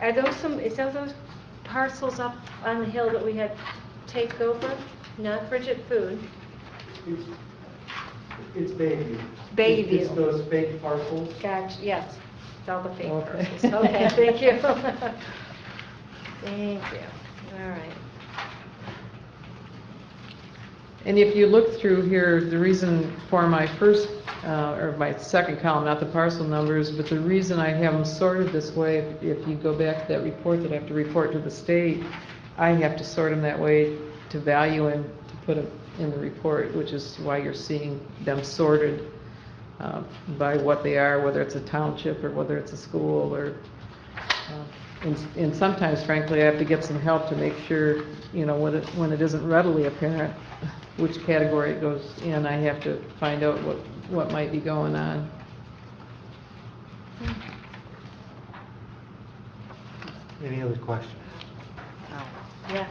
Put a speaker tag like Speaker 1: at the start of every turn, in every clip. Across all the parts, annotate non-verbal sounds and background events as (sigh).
Speaker 1: Are those some, is that those parcels up on the hill that we had take over? Not Bridget Food,
Speaker 2: It's, it's Bayview.
Speaker 1: Bayview.
Speaker 2: It's those fake parcels.
Speaker 1: gotcha, yes, it's all the fake
Speaker 3: Okay.
Speaker 1: parcels. (laughs) Okay, thank you. Thank you, all right.
Speaker 3: And if you look through here, the reason for my first, uh, or my second column, not the parcel numbers, but the reason I have them sorted this way, if you go back to that report that I have to report to the state, I have to sort them that way to value and to put them in the report, which is why you're seeing them sorted uh, by what they are, whether it's a township or whether it's a school or uh, And and sometimes frankly, I have to get some help to make sure, you know, when it, when it isn't readily apparent which category it goes in, I have to find out what, what might be going on.
Speaker 2: Any other questions?
Speaker 1: Yeah.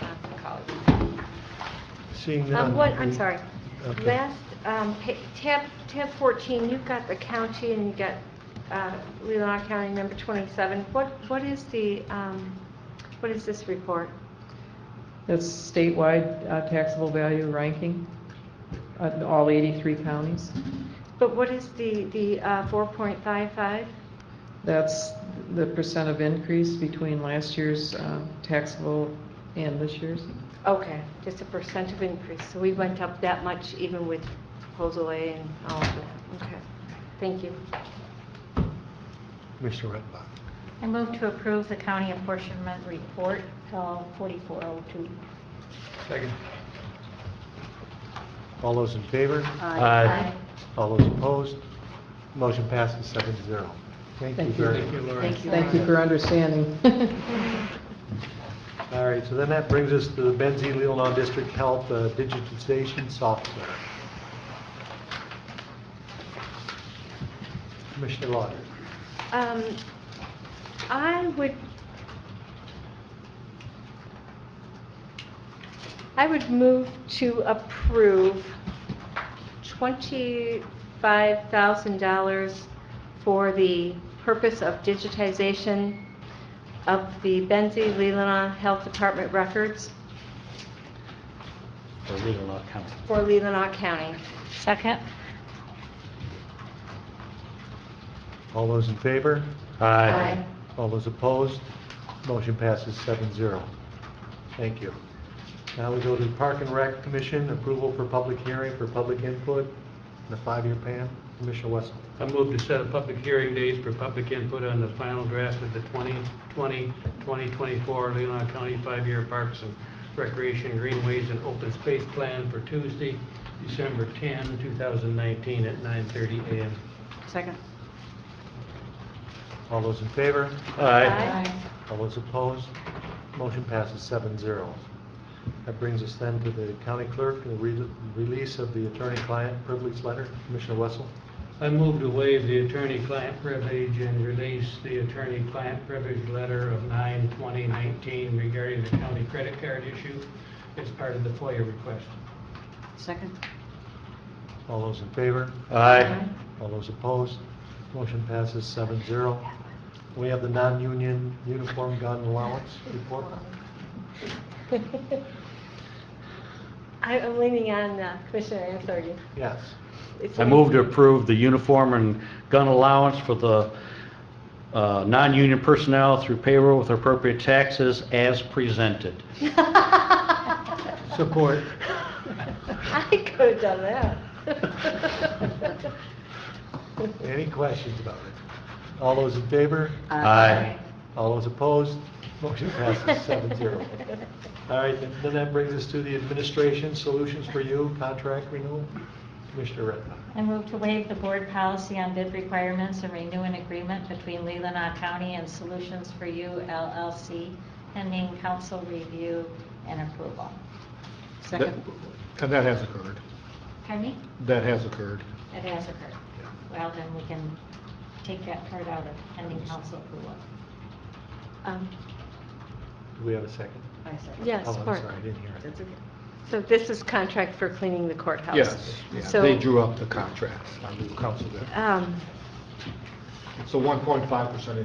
Speaker 1: I'll call you.
Speaker 2: Seeing
Speaker 1: Um, what, I'm sorry.
Speaker 2: Okay.
Speaker 1: Last, um, pa- tab, tab 14, you've got the county and you've got uh, Leelanau County, number 27. What, what is the, um, what is this report?
Speaker 3: That's statewide uh, taxable value ranking, uh, in all 83 counties.
Speaker 1: But what is the, the uh, 4.55?
Speaker 3: That's the percent of increase between last year's uh, taxable and this year's.
Speaker 1: Okay, just a percent of increase. So we went up that much even with proposal A and all of that. Okay, thank you.
Speaker 2: Commissioner Redpath.
Speaker 4: I move to approve the county apportionment report, L 4402.
Speaker 2: Second. All those in favor?
Speaker 4: Aye.
Speaker 2: All those opposed? Motion passes seven to zero. Thank you
Speaker 3: Thank
Speaker 2: very
Speaker 3: you.
Speaker 2: much.
Speaker 4: Thank you.
Speaker 3: Thank you for understanding. (laughs)
Speaker 2: All right, so then that brings us to the Benzie Leelanau District Health uh, Digitization Software. Commissioner Lauder.
Speaker 1: Um, I would, I would move to approve $25,000 for the purpose of digitization of the Benzie Leelanau Health Department records
Speaker 5: for Leelanau County.
Speaker 1: for Leelanau County.
Speaker 4: Second?
Speaker 2: All those in favor?
Speaker 1: Aye.
Speaker 2: All those opposed? Motion passes seven zero. Thank you. Now we go to the Park and Rec Commission, approval for public hearing for public input, the five-year plan. Commissioner Wessel.
Speaker 6: I move to set a public hearing dates for public input on the final draft of the 2020-2024 Leelanau County Five-Year Parks and Recreation Greenways and Open Space Plan for Tuesday, December 10, 2019, at 9:30 a.m.
Speaker 4: Second.
Speaker 2: All those in favor?
Speaker 5: Aye.
Speaker 2: All those opposed? Motion passes seven zero. That brings us then to the county clerk, the re- release of the attorney-client privilege letter. Commissioner Wessel?
Speaker 6: I move to waive the attorney-client privilege and release the attorney-client privilege letter of 9/2019 regarding the county credit card issue as part of the FOIA request.
Speaker 4: Second?
Speaker 2: All those in favor?
Speaker 5: Aye.
Speaker 2: All those opposed? Motion passes seven zero. We have the non-union uniform gun allowance report.
Speaker 1: I- I'm leaning on uh, Commissioner Ansari.
Speaker 2: Yes.
Speaker 1: It's-
Speaker 5: I move to approve the uniform and gun allowance for the uh, non-union personnel through payroll with appropriate taxes as presented.
Speaker 2: Support.
Speaker 1: I could have done that.
Speaker 2: Any questions about it? All those in favor?
Speaker 5: Aye.
Speaker 2: All those opposed? Motion passes seven zero. All right, then then that brings us to the administration solutions for you, contract renewal. Commissioner Redpath.
Speaker 4: I move to waive the board policy on bid requirements and renew an agreement between Leelanau County and Solutions for You LLC pending council review and approval. Second?
Speaker 7: And that has occurred.
Speaker 4: Pardon me?
Speaker 7: That has occurred.
Speaker 4: It has occurred. Well, then we can take that part out of pending council approval.
Speaker 1: Um,
Speaker 2: Do we have a second?
Speaker 1: Yeah,
Speaker 2: Oh, I'm
Speaker 1: support.
Speaker 2: sorry, I didn't hear it.
Speaker 1: So this is contract for cleaning the courthouse?
Speaker 7: Yes, yeah,
Speaker 1: So,
Speaker 7: they drew up the contracts on the council there.
Speaker 1: um,
Speaker 7: So 1.5%